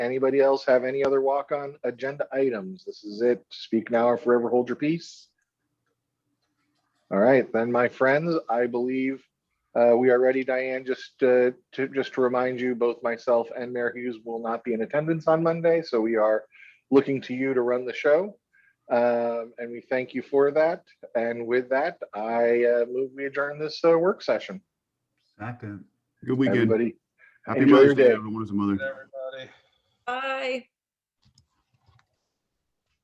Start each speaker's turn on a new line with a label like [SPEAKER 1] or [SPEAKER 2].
[SPEAKER 1] Anybody else have any other walk-on agenda items? This is it. Speak now or forever hold your peace. All right, then, my friends, I believe uh, we are ready. Diane, just uh, to, just to remind you, both myself and Mayor Hughes will not be in attendance on Monday, so we are looking to you to run the show. Um, And we thank you for that. And with that, I uh, move we adjourn this uh, work session.
[SPEAKER 2] Second.
[SPEAKER 3] Good weekend.
[SPEAKER 1] Everybody,
[SPEAKER 3] Happy
[SPEAKER 1] enjoy your
[SPEAKER 3] Mother's Day,
[SPEAKER 1] day.
[SPEAKER 3] everyone as a mother.
[SPEAKER 4] Everybody.
[SPEAKER 5] Bye.